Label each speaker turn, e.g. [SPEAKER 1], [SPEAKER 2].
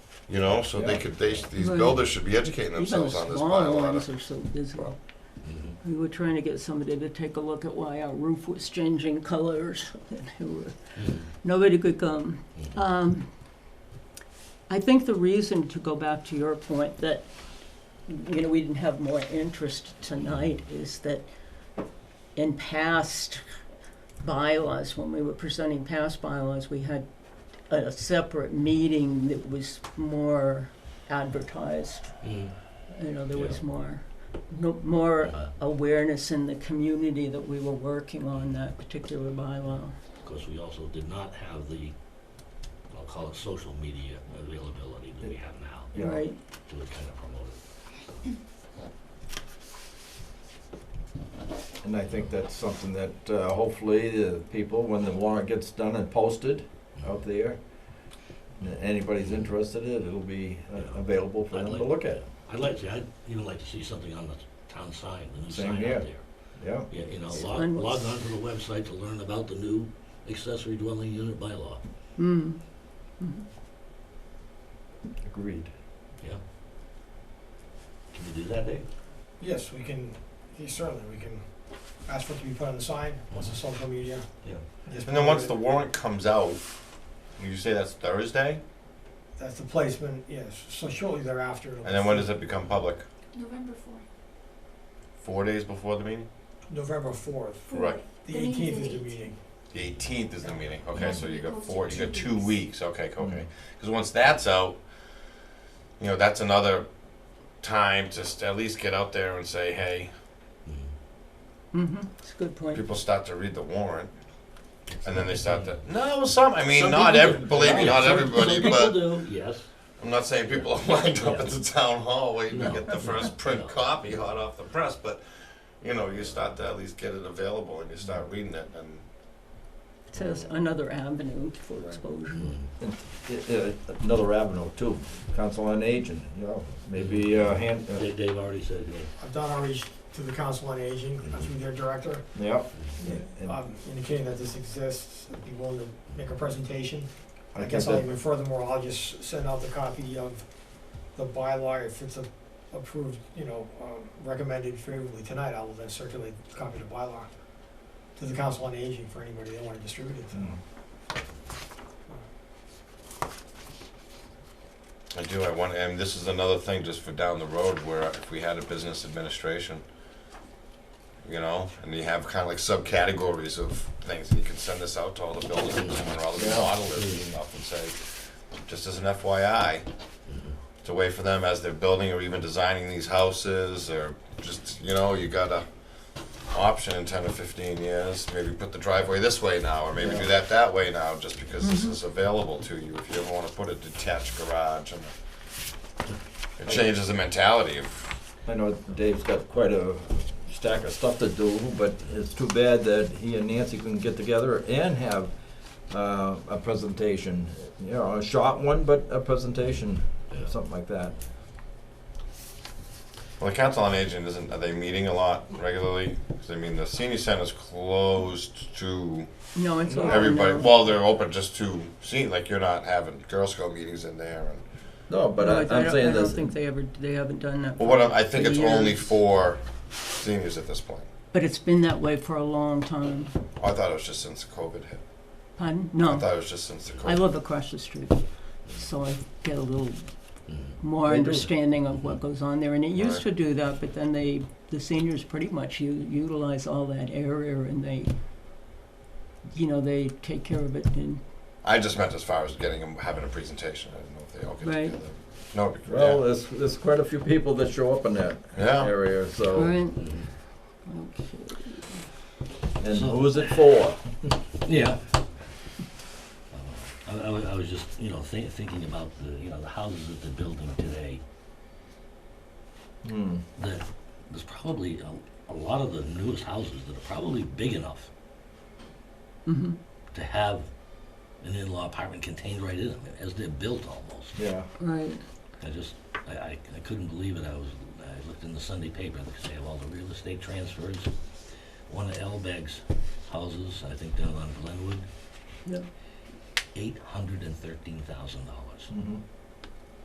[SPEAKER 1] You know, so they
[SPEAKER 2] Yeah.
[SPEAKER 1] could, they, these
[SPEAKER 3] Right.
[SPEAKER 1] builders should be educating
[SPEAKER 3] Even the
[SPEAKER 1] themselves on this
[SPEAKER 3] smaller ones
[SPEAKER 1] bylaw.
[SPEAKER 3] are so busy.
[SPEAKER 4] Mm-hmm.
[SPEAKER 3] We were trying to get somebody to take a look at why our roof was changing colors. They were- Nobody could come. Um, I think the reason, to go back to your point, that, you know, we didn't have more interest tonight is that in past bylaws, when we were presenting past bylaws, we had a separate meeting that was more advertised.
[SPEAKER 4] Mm-hmm.
[SPEAKER 3] You know, there was
[SPEAKER 4] Yeah.
[SPEAKER 3] more, no, more
[SPEAKER 4] Mm-hmm.
[SPEAKER 3] awareness in the community that we were working on that particular bylaw.
[SPEAKER 4] Because we also did not have the, I'll call it social media availability that we have now
[SPEAKER 2] Yeah.
[SPEAKER 3] Right,
[SPEAKER 4] to kind of promote it.
[SPEAKER 2] And I think that's something that uh, hopefully the people, when the warrant gets done and posted out there, and anybody's interested in it, it'll be uh,
[SPEAKER 4] Yeah.
[SPEAKER 2] available for
[SPEAKER 4] I'd
[SPEAKER 2] them
[SPEAKER 4] like-
[SPEAKER 2] to look at.
[SPEAKER 4] I'd like to, I'd even like to see something on the town sign, the new
[SPEAKER 2] Same
[SPEAKER 4] sign
[SPEAKER 2] here.
[SPEAKER 4] out there.
[SPEAKER 2] Yeah,
[SPEAKER 4] Yeah, you know,
[SPEAKER 3] It's
[SPEAKER 4] log,
[SPEAKER 3] fun.
[SPEAKER 4] log on to the website to learn about the new accessory dwelling unit bylaw,
[SPEAKER 3] hmm, Mhm.
[SPEAKER 2] agreed.
[SPEAKER 4] yeah? Can we do that, Dave?
[SPEAKER 5] Yes, we can, yeah, certainly, we can ask for it to be put on the sign, once the social media.
[SPEAKER 4] Yeah.
[SPEAKER 5] is
[SPEAKER 1] And then once the
[SPEAKER 5] promoted.
[SPEAKER 1] warrant comes out, you say that's Thursday,
[SPEAKER 5] That's the placement, yes, so shortly thereafter. it'll
[SPEAKER 1] and then when
[SPEAKER 5] be-
[SPEAKER 1] does it become public?
[SPEAKER 6] November fourth.
[SPEAKER 1] Four days before the meeting?
[SPEAKER 5] November fourth,
[SPEAKER 1] Right.
[SPEAKER 5] the
[SPEAKER 6] The meeting's
[SPEAKER 5] eighteenth
[SPEAKER 6] the
[SPEAKER 5] is the
[SPEAKER 6] 18th.
[SPEAKER 5] meeting.
[SPEAKER 1] The eighteenth is the meeting, okay,
[SPEAKER 6] Yeah.
[SPEAKER 1] so you got
[SPEAKER 6] Goes to
[SPEAKER 1] four, you got
[SPEAKER 6] two
[SPEAKER 1] two
[SPEAKER 6] weeks.
[SPEAKER 1] weeks, okay,
[SPEAKER 4] Mm-hmm.
[SPEAKER 1] okay. Because once that's out, you know, that's another time to st- at least get out there and say, hey,
[SPEAKER 4] Mm-hmm.
[SPEAKER 3] hmm it's a good point.
[SPEAKER 1] people start to read the warrant, and then they start to, no, some, I mean,
[SPEAKER 4] Some
[SPEAKER 1] not
[SPEAKER 4] people
[SPEAKER 1] every,
[SPEAKER 4] do.
[SPEAKER 1] believe me,
[SPEAKER 4] Yeah,
[SPEAKER 1] not
[SPEAKER 4] some-
[SPEAKER 1] everybody,
[SPEAKER 4] some people
[SPEAKER 1] but
[SPEAKER 4] do, Yes.
[SPEAKER 1] I'm not saying people are lined up at the town hall waiting to
[SPEAKER 4] No.
[SPEAKER 1] get the first print
[SPEAKER 4] No.
[SPEAKER 1] copy hot off the press, but, you know, you start to at least get it available and you start reading it, and
[SPEAKER 3] It says another avenue for exposure.
[SPEAKER 4] Mm-hmm.
[SPEAKER 2] I- uh, Another avenue too, council on aging, you know, maybe uh, hand, uh,
[SPEAKER 4] Dave, Dave already said, yeah.
[SPEAKER 5] I've done outreach to the Council on Aging,
[SPEAKER 1] Mm-hmm.
[SPEAKER 5] through their director,
[SPEAKER 2] yeah. And
[SPEAKER 5] um, indicating that this exists, I'd be willing to make a presentation.
[SPEAKER 2] I
[SPEAKER 5] I
[SPEAKER 2] think
[SPEAKER 5] guess I'll
[SPEAKER 2] that,
[SPEAKER 5] even furthermore, I'll just send out the copy of the bylaw, if it's a- approved, you know, um, recommended favorably tonight, I will then circulate a copy of the bylaw to the Council on Aging for anybody that wanna distribute it to.
[SPEAKER 2] Mm.
[SPEAKER 1] I do, I want, and this is another thing just for down the road where if we had a business administration, you know, and you have kind of like subcategories of things, and you can send this out to all the buildings and all the
[SPEAKER 2] Yeah.
[SPEAKER 1] modelers and stuff and say, just as an FYI,
[SPEAKER 4] Mm-hmm.
[SPEAKER 1] it's a way for them as they're building or even designing these houses or just, you know, you got a option in ten or fifteen years, maybe put the driveway this way now, or maybe do that that way now, just because this
[SPEAKER 3] Mm-hmm.
[SPEAKER 1] is available to you, if you ever wanna put a detached garage and it changes the mentality of,
[SPEAKER 2] I know Dave's got quite a stack of stuff to do, but it's too bad that he and Nancy couldn't get together and have uh, a presentation, you know, a short one, but a presentation,
[SPEAKER 4] Yeah.
[SPEAKER 2] something like that.
[SPEAKER 1] well, the council on aging isn't, are they meeting a lot regularly? 'Cause I mean, the senior center's closed to
[SPEAKER 3] Oh, No, it's open now.
[SPEAKER 1] everybody, well, they're open just to, see, like, you're not having Girl Scout meetings in there and
[SPEAKER 2] No, but
[SPEAKER 3] No, I- I
[SPEAKER 2] I- I'm
[SPEAKER 3] don't-
[SPEAKER 2] saying
[SPEAKER 3] I don't
[SPEAKER 2] this,
[SPEAKER 3] think they ever, they haven't done that.
[SPEAKER 1] Well,
[SPEAKER 3] for-
[SPEAKER 1] what I'm, I think
[SPEAKER 3] for
[SPEAKER 1] it's only
[SPEAKER 3] years.
[SPEAKER 1] for seniors at this point.
[SPEAKER 3] But it's been that way for a long time.
[SPEAKER 1] I thought it was just since COVID hit.
[SPEAKER 3] Pardon?
[SPEAKER 1] I
[SPEAKER 3] No,
[SPEAKER 1] thought it was just since the COVID.
[SPEAKER 3] I live across the street, so I get a little more
[SPEAKER 2] They do.
[SPEAKER 3] understanding of what goes on there. And it used
[SPEAKER 1] Right.
[SPEAKER 3] to do that, but then they, the seniors pretty much u- utilize all that area and they, you know, they take care of it and,
[SPEAKER 1] I just meant as far as getting them having a presentation. I didn't know if they all get
[SPEAKER 3] Right.
[SPEAKER 1] together. No, it'd be-
[SPEAKER 2] well, there's, there's quite a few people that show up in that
[SPEAKER 1] Yeah.
[SPEAKER 2] area, so,
[SPEAKER 3] Alright,
[SPEAKER 1] Mm-hmm.
[SPEAKER 3] okay.
[SPEAKER 2] and who's it for?
[SPEAKER 4] Yeah. Uh, I, I wa- I was just, you know, thi- thinking about the, you know, the houses that they're building today,
[SPEAKER 2] Hmm.
[SPEAKER 4] that there's probably a, a lot of the newest houses that are probably big enough
[SPEAKER 3] Mm-hmm.
[SPEAKER 4] to have an in-law apartment contained right in them, as they're built almost.
[SPEAKER 2] Yeah,
[SPEAKER 3] Right.
[SPEAKER 4] I just, I, I, I couldn't believe it, I was, I looked in the Sunday paper, because they have all the real estate transfers. One of Elbeg's houses, I think down on Glenwood,
[SPEAKER 3] Yeah.
[SPEAKER 4] eight hundred and thirteen thousand dollars.
[SPEAKER 2] mhm.